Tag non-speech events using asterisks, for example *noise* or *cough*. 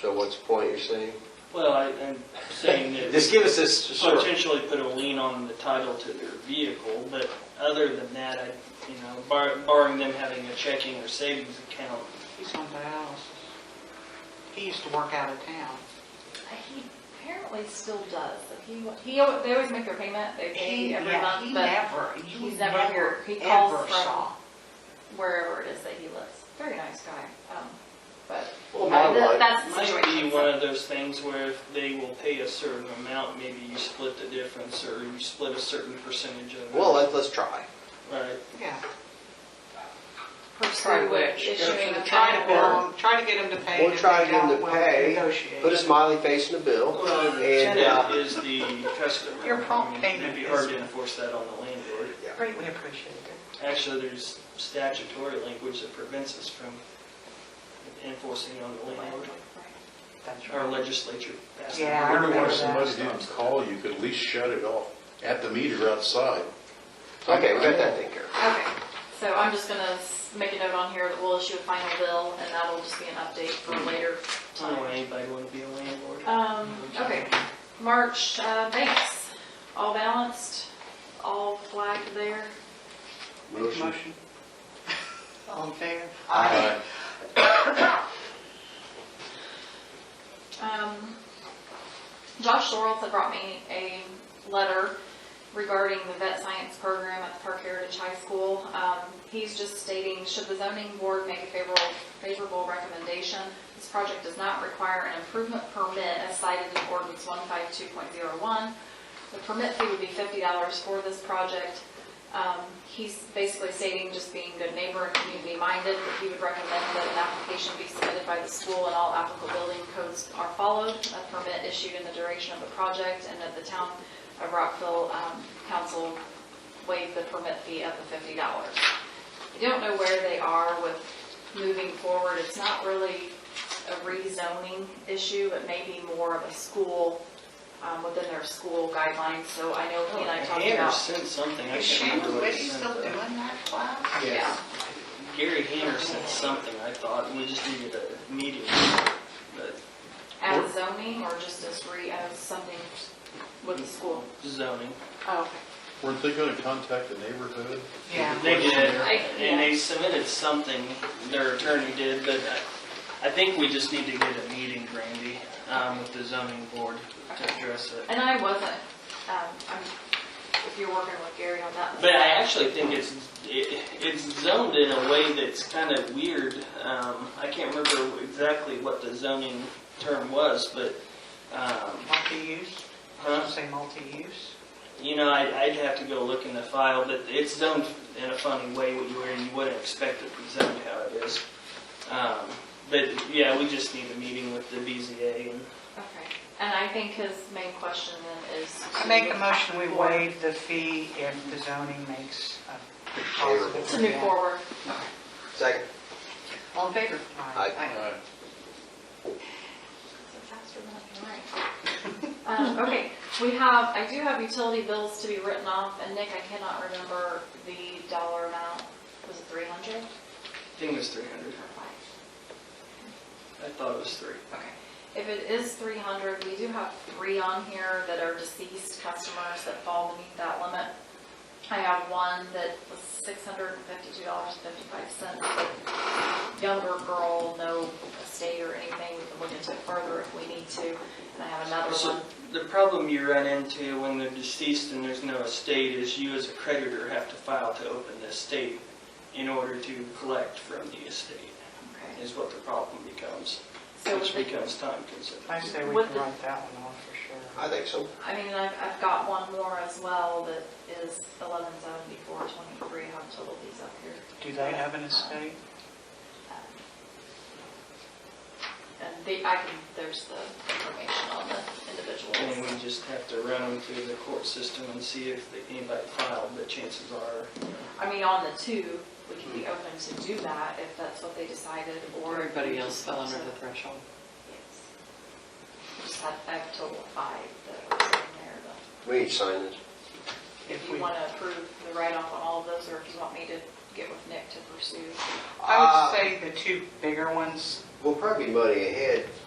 So what's the point you're saying? Well, I- I'm saying that. Oh, Just give us this, to sort of- potentially put a lien on the title to their vehicle, but other than that, I, you know, bar- barring them having a checking or savings account, He's on dialysis. He used to work out of town. He apparently still does. He, he, al- they always make their payment, they pay He, every yeah, month, he but never, you he's never never, here. He calls ever from- saw. wherever it is that he lives. Very nice guy, um, but Well, I- my that- wife, that's the might be situation. one of those things where if they will pay a certain amount, maybe you split the difference, or you split a certain percentage of it. well, let's, let's try. Right, Yeah. Pursue Try to- issuing a Try to bond. bill him, try to get him to pay. We'll and if try they to get him don't, to we'll pay, Negotiate. Put a smiley face in the bill, well, the And, uh, tenant is the customer. Your prompt I mean, It'd be payment hard is- to enforce that on the landlord. Great, we appreciate it. Actually, there's statutory language that prevents us from enforcing it on the landlord. That's Our right. legislature passed. it. Yeah, I Wonder why remember somebody that. didn't call you, could at least shut it off at the meter outside. Okay, we got that taken care of. Okay, so I'm just gonna s- make a note on here that we'll issue a final bill, and that'll just be an update for later I don't know time. anybody want to be a landlord. Um, okay, March, uh, banks, all balanced, all flagged there. motion, Motion. All in favor? Aye. Um, Josh Sorrells had brought me a letter regarding the vet science program at the Park Heritage High School. Um, he's just stating, should the zoning board make a favorable, favorable recommendation, this project does not require an improvement permit as cited in ordinance one five two point zero one. The permit fee would be fifty dollars for this project. Um, he's basically stating just being good neighbor and community minded, that he would recommend that an application be submitted by the school and all applicable building codes are followed, a permit issued in the duration of the project, and that the town of Rockville, um, council waived the permit fee of the fifty dollars. I don't know where they are with moving forward. It's not really a rezoning issue, but maybe more of a school, um, within their school guidelines, so I know he and I talked Hammer about. sent something, I can't Is Shannon remember what Whitty he still sent. doing though. that class? Yeah. Gary Hammer sent something, I thought, we just needed a meeting, but As zoning or just as re, as something with the school? zoning. Oh, Weren't they gonna contact the neighborhood? Yeah. They did, I- and they submitted something, their attorney did, but I, I think we just need to get a meeting, Randy, um, with the zoning board to address it. and I wasn't, um, I'm, if you're working with Gary on that. But I actually think it's, it- it's zoned in a way that's kind of weird. Um, I can't remember exactly what the zoning term was, but, um, Multi-use, huh? say multi-use. You know, I'd, I'd have to go look in the file, but it's zoned in a funny way where you wouldn't expect it to be zoned how it is. Um, but yeah, we just need a meeting with the BZA and Okay, and I think his main question then is. I make a motion, we waive the fee if the zoning makes a positive. To move *laughs* forward. Second. All in favor? Aye. Faster than I can write. Um, Okay, we have, I do have utility bills to be written off, and Nick, I cannot remember the dollar amount. Was it 300? I think it was 300. I thought it was three. Okay. If it is 300, we do have three on here that are deceased customers that fall beneath that limit. I have one that was $652.55. Younger girl, no estate or anything, we can look into it further if we need to. And I have another So one. the problem you run into when they're deceased and there's no estate is you as a creditor have to file to open the estate in order to collect from the estate Okay. is what the problem becomes, So which with the- becomes time consuming. I say we With can the- write that one off for sure. I think so. I mean, I've, I've got one more as well that is 1174.23. I have total these up here. Do they have an estate? And they, I can, there's the information on the And individuals. we just have to run them through the court system and see if they- anybody filed, but chances are, you know, I mean, on the two, we can be open to do that if that's what they decided or. Everybody else fell under the threshold. Yes. Just had, I have total of five that are in there, but We need to sign this. If if we, you want to approve the write-off on all of those or if you want me to get with Nick to pursue. Uh, I would say the two bigger ones We'll probably Ah, be money ahead